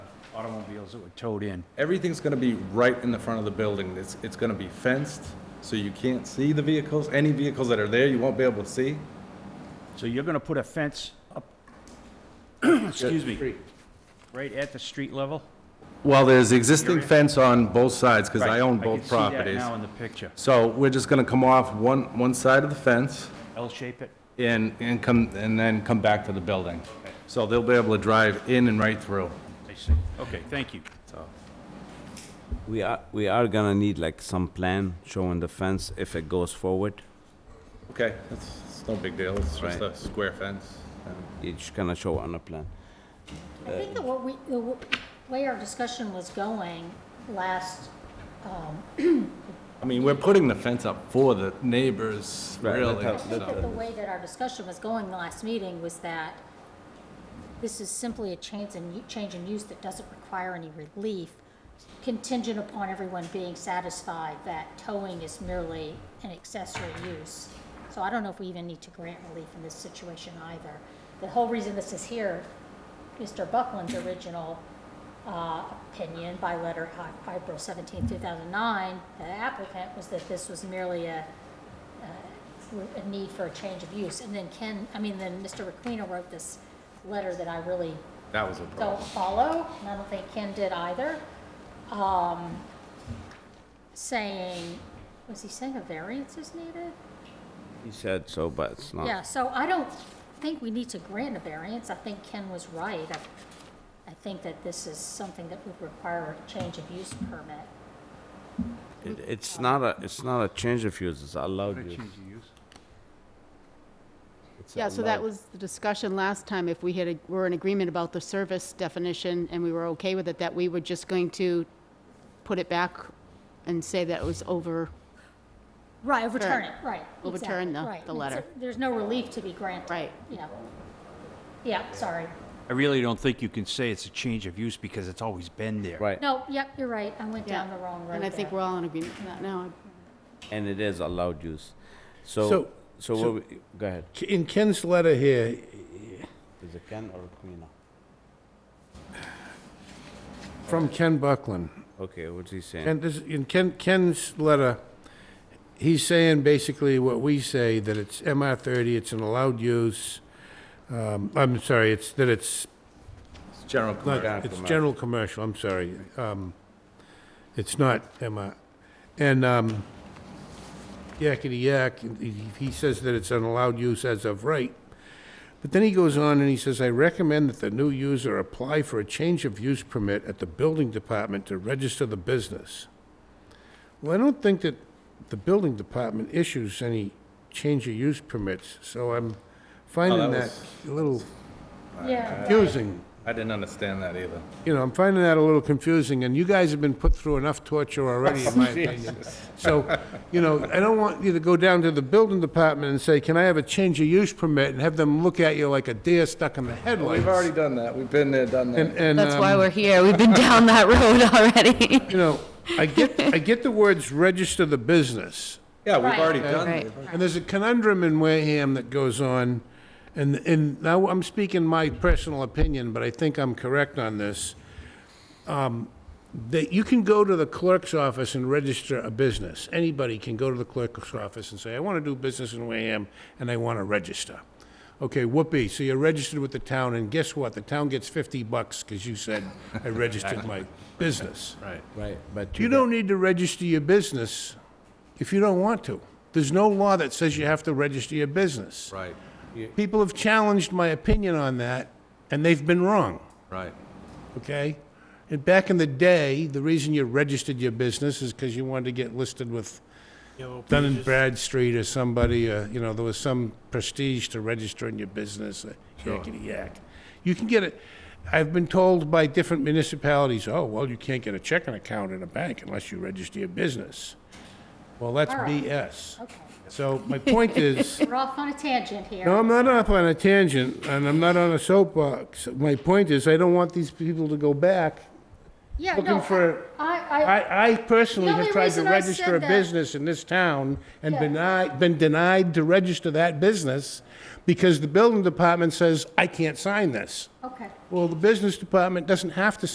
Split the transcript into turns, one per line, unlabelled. automobiles that were towed in.
Everything's gonna be right in the front of the building. It's, it's gonna be fenced, so you can't see the vehicles. Any vehicles that are there, you won't be able to see.
So you're gonna put a fence up, excuse me, right at the street level?
Well, there's existing fence on both sides, because I
Right,
own
can
both
see that
properties.
now in the picture.
So we're just gonna come off one, one side of the fence
L-shape it?
and, and come, and then come back to the building. So they'll be able to drive in and right through,
I see. Okay, thank you.
so.
We are, we are gonna need like some plan showing the fence if it goes forward.
Okay, that's, it's no big deal. It's just
Right.
a square fence. Um,
You're just gonna show on a plan.
I think that what we, the w- way our discussion was going last,
I mean, we're putting the fence up for the neighbors,
Right,
really.
I
that's
think that the
so-
way that our discussion was going the last meeting was that this is simply a change in, change in use that doesn't require any relief, contingent upon everyone being satisfied that towing is merely an accessory use. So I don't know if we even need to grant relief in this situation either. The whole reason this is here, Mr. Buckland's original uh, opinion by letter of April 17, 2009, the applicant, was that this was merely a for a need for a change of use. And then Ken, I mean, then Mr. Requena wrote this letter that I really
That was a
don't
problem.
follow, and I don't think Ken did either, um, saying, was he saying a variance is needed?
He said so, but it's not.
Yeah, so I don't think we need to grant a variance. I think Ken was right. I- I think that this is something that would require a change of use permit.
It- It's not a, it's not a change of use, it's allowed use. It's
Yeah, so that
allowed.
was the discussion last time, if we had, a- were in agreement about the service definition, and we were okay with it, that we were just going to put it back and say that it was over,
Right, overturn it, right.
Overturn
exactly,
the-
right.
the letter.
There's no relief to be granted.
Right.
Yeah. Yeah, sorry.
I really don't think you can say it's a change of use because it's always been there.
Right,
No, yep, you're right. I went
yeah.
down the wrong road
And I think
there.
we're all in agreement with that now.
and it is allowed use. So,
So-
so,
so-
what we- go ahead.
In Ken's letter here,
Is it Ken or Quina?
from Ken Buckland,
Okay, what's he saying?
Ken, this, in Ken, Ken's letter, he's saying basically what we say, that it's MR thirty, it's an allowed use. Um, I'm sorry, it's, that it's
It's General
not,
commercial.
it's general commercial, I'm sorry. Um, it's not MR. And, um, yakety yak, he, he says that it's an allowed use as of right. But then he goes on and he says, I recommend that the new user apply for a change of use permit at the building department to register the business. Well, I don't think that the building department issues any change of use permits, so I'm
that
finding that
was-
a little
Yeah.
confusing.
I didn't understand that either.
You know, I'm finding that a little confusing, and you guys have been put through enough torture already, in my opinion. So, you know, I don't want you to go down to the building department and say, can I have a change of use permit, and have them look at you like a deer stuck in the
We've
headlights.
already done that. We've been there, done
And,
that.
and,
That's why
um,
we're here. We've been down that road already.
you know, I get, I get the words register the business,
Yeah, we've
Right.
already done
Right.
it.
and there's a conundrum in Wareham that goes on, and, and now I'm speaking my personal opinion, but I think I'm correct on this, um, that you can go to the clerk's office and register a business. Anybody can go to the clerk's office and say, I want to do business in Wareham, and I want to register. Okay, whoopee, so you're registered with the town, and guess what? The town gets 50 bucks because you said, I registered my business.
Right.
Right, but
You
got-
don't need to register your business if you don't want to. There's no law that says you have to register your business.
Right,
People have challenged my opinion on that, and they've been wrong,
right.
okay? And back in the day, the reason you registered your business is because you wanted to get listed with Dun and Bradstreet or somebody, uh, you know, there was some prestige to registering your business, uh, yakety-yak. You can get it, I've been told by different municipalities, oh, well, you can't get a checking account in a bank unless you register your business. Well, that's
All right.
BS.
Okay.
So my point is,
We're off on a tangent here.
no, I'm not up on a tangent, and I'm not on a soapbox. My point is, I don't want these people to go back.
Yeah,
looking
no,
for-
I, I,
I, I personally
The
have
only
tried to
reason I
register
said
a
that-
business in this town and
Yeah.
been denied, been denied to register that business because the building department says, I can't sign this.
okay.
Well, the business department doesn't have to